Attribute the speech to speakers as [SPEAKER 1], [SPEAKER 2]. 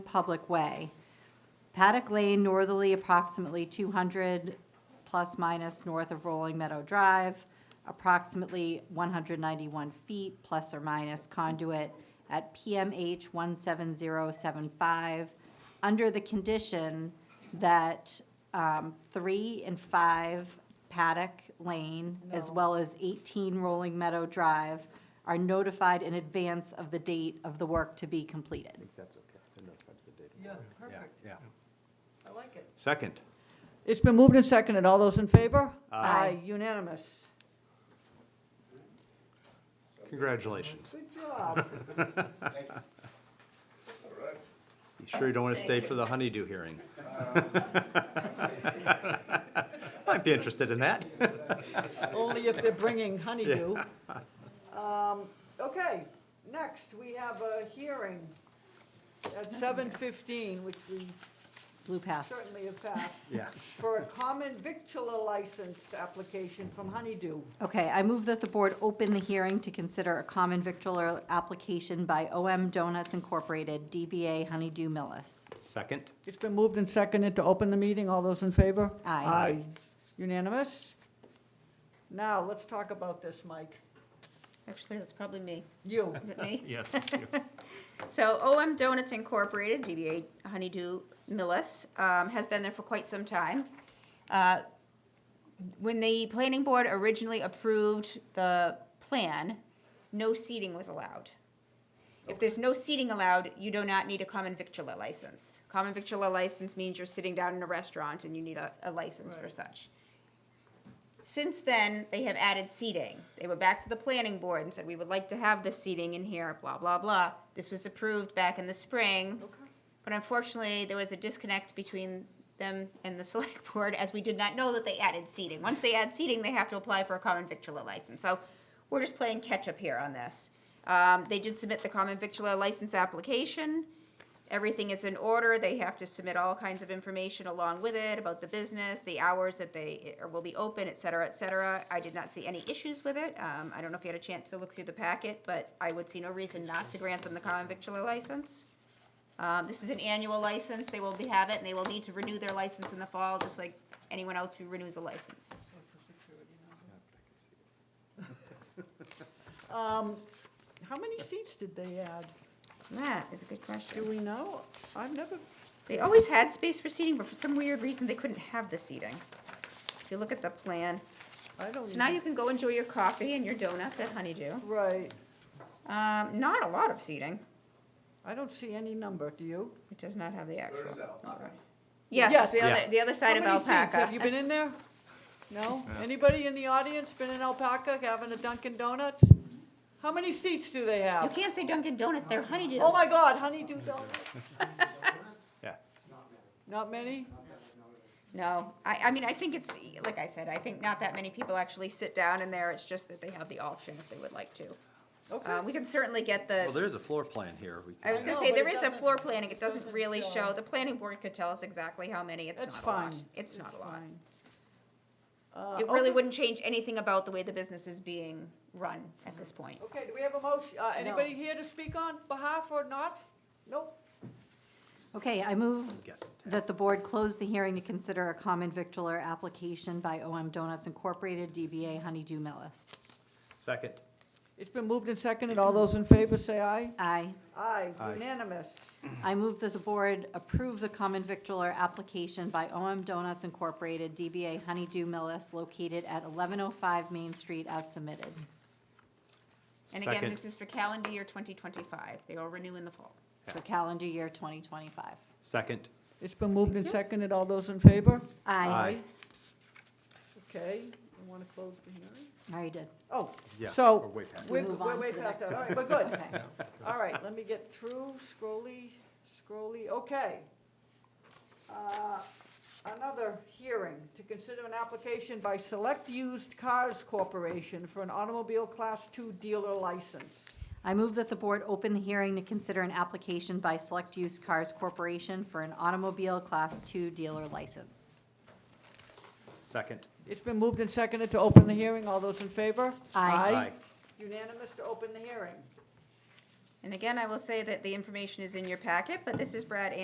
[SPEAKER 1] public way. Paddock Lane northerly approximately 200 plus minus north of Rolling Meadow Drive, approximately 191 feet plus or minus conduit at PMH 17075, under the condition that um, 3 and 5 Paddock Lane, as well as 18 Rolling Meadow Drive, are notified in advance of the date of the work to be completed.
[SPEAKER 2] That's okay. They're notified of the date.
[SPEAKER 3] Yeah,
[SPEAKER 2] Yeah,
[SPEAKER 3] perfect.
[SPEAKER 2] yeah.
[SPEAKER 3] I like it.
[SPEAKER 2] Second,
[SPEAKER 3] It's been moved and seconded. All those in favor?
[SPEAKER 1] Aye.
[SPEAKER 3] Unanimous.
[SPEAKER 2] congratulations.
[SPEAKER 3] Good job.
[SPEAKER 2] You sure you don't want to stay for the honeydew hearing? Might be interested in that.
[SPEAKER 3] Only if they're bringing honeydew. Um, Okay, next, we have a hearing at 7:15, which we
[SPEAKER 1] Blue past.
[SPEAKER 3] certainly have passed,
[SPEAKER 2] Yeah.
[SPEAKER 3] for a common victular license application from Honeydew.
[SPEAKER 1] Okay, I move that the board open the hearing to consider a common victular application by OM Donuts Incorporated, DBA Honeydew Millis.
[SPEAKER 2] Second,
[SPEAKER 3] It's been moved and seconded to open the meeting. All those in favor?
[SPEAKER 1] Aye.
[SPEAKER 3] Aye. Unanimous? Now, let's talk about this, Mike.
[SPEAKER 4] Actually, that's probably me.
[SPEAKER 3] You.
[SPEAKER 4] Is it me?
[SPEAKER 5] Yes, it's you.
[SPEAKER 4] So OM Donuts Incorporated, DBA Honeydew Millis, um, has been there for quite some time. Uh, When the planning board originally approved the plan, no seating was allowed. If there's no seating allowed, you do not need a common victular license. Common victular license means you're sitting down in a restaurant and you need a, a license for such. Since then, they have added seating. They went back to the planning board and said, we would like to have this seating in here, blah, blah, blah. This was approved back in the spring. But unfortunately, there was a disconnect between them and the select board as we did not know that they added seating. Once they add seating, they have to apply for a common victular license. So we're just playing catch up here on this. Um, they did submit the common victular license application everything is in order. They have to submit all kinds of information along with it about the business, the hours that they or will be open, et cetera, et cetera. I did not see any issues with it. Um, I don't know if you had a chance to look through the packet, but I would see no reason not to grant them the common victular license. Um, this is an annual license. They will be, have it, and they will need to renew their license in the fall, just like anyone else who renews a license.
[SPEAKER 3] Um, How many seats did they add?
[SPEAKER 4] That is a good question.
[SPEAKER 3] Do we know? I've never,
[SPEAKER 4] They always had space for seating, but for some weird reason, they couldn't have the seating. If you look at the plan,
[SPEAKER 3] I don't.
[SPEAKER 4] So now you can go enjoy your coffee and your donuts at Honeydew.
[SPEAKER 3] Right.
[SPEAKER 4] Um, not a lot of seating.
[SPEAKER 3] I don't see any number, do you?
[SPEAKER 4] It does not have the actual. Okay. Yes,
[SPEAKER 3] Yes.
[SPEAKER 4] the
[SPEAKER 2] Yeah.
[SPEAKER 4] other, the other side of
[SPEAKER 3] How many seats?
[SPEAKER 4] Alpaca.
[SPEAKER 3] Have you been in there? No? Anybody in the audience been in Alpaca having a Dunkin' Donuts? How many seats do they
[SPEAKER 4] You
[SPEAKER 3] have?
[SPEAKER 4] can't say Dunkin' Donuts, they're Honeydew.
[SPEAKER 3] Oh my God, Honeydew Donuts.
[SPEAKER 2] yeah.
[SPEAKER 3] Not many?
[SPEAKER 4] No, I, I mean, I think it's, like I said, I think not that many people actually sit down in there. It's just that they have the option if they would like to.
[SPEAKER 3] Okay.
[SPEAKER 4] Uh, we can certainly get the.
[SPEAKER 2] Well, there's a floor plan here. We
[SPEAKER 4] I was
[SPEAKER 2] can-
[SPEAKER 4] gonna
[SPEAKER 3] No,
[SPEAKER 4] say,
[SPEAKER 3] but
[SPEAKER 4] there
[SPEAKER 3] it
[SPEAKER 4] is a
[SPEAKER 3] doesn't-
[SPEAKER 4] floor planning, it doesn't
[SPEAKER 3] doesn't
[SPEAKER 4] really
[SPEAKER 3] show.
[SPEAKER 4] show, the planning board could tell us exactly how many, it's
[SPEAKER 3] It's
[SPEAKER 4] not a lot.
[SPEAKER 3] fine.
[SPEAKER 4] It's not a lot.
[SPEAKER 3] fine. Uh,
[SPEAKER 4] It really
[SPEAKER 3] okay.
[SPEAKER 4] wouldn't change anything about the way the business is being run at this point.
[SPEAKER 3] Okay, do we have a motion? Uh, anybody here to speak on behalf or not? Nope.
[SPEAKER 1] Okay, I move
[SPEAKER 2] Guessing tag.
[SPEAKER 1] that the board close the hearing to consider a common victular application by OM Donuts Incorporated, DBA Honeydew Millis.
[SPEAKER 2] Second,
[SPEAKER 3] It's been moved and seconded. All those in favor say aye.
[SPEAKER 1] Aye.
[SPEAKER 3] Aye,
[SPEAKER 2] Aye.
[SPEAKER 3] unanimous.
[SPEAKER 1] I move that the board approve the common victular application by OM Donuts Incorporated, DBA Honeydew Millis, located at 1105 Main Street as submitted.
[SPEAKER 4] And again,
[SPEAKER 2] Second.
[SPEAKER 4] this is for calendar year twenty twenty-five, they all renew in the fall.
[SPEAKER 1] for calendar year 2025.
[SPEAKER 2] second,
[SPEAKER 3] It's been moved and seconded. All those in favor?
[SPEAKER 2] aye.
[SPEAKER 3] Okay, you want to close the hearing?
[SPEAKER 1] I already did.
[SPEAKER 3] Oh,
[SPEAKER 2] Yeah,
[SPEAKER 3] So-
[SPEAKER 2] we're way past.
[SPEAKER 3] we're,
[SPEAKER 1] move
[SPEAKER 3] we're
[SPEAKER 1] on
[SPEAKER 3] way
[SPEAKER 1] to the
[SPEAKER 3] past
[SPEAKER 1] next
[SPEAKER 3] that, all right, we're good.
[SPEAKER 1] Okay.
[SPEAKER 3] All right, let me get through, scrolly, scrolly, okay. Uh, Another hearing, to consider an application by Select Used Cars Corporation for an automobile Class Two dealer license.
[SPEAKER 1] I move that the board open the hearing to consider an application by Select Use Cars Corporation for an automobile Class II dealer license.
[SPEAKER 2] Second,
[SPEAKER 3] It's been moved and seconded to open the hearing, all those in favor?
[SPEAKER 1] Aye.
[SPEAKER 2] aye.
[SPEAKER 3] Unanimous to open the hearing.
[SPEAKER 4] And again, I will say that the information is in your packet, but this is Brad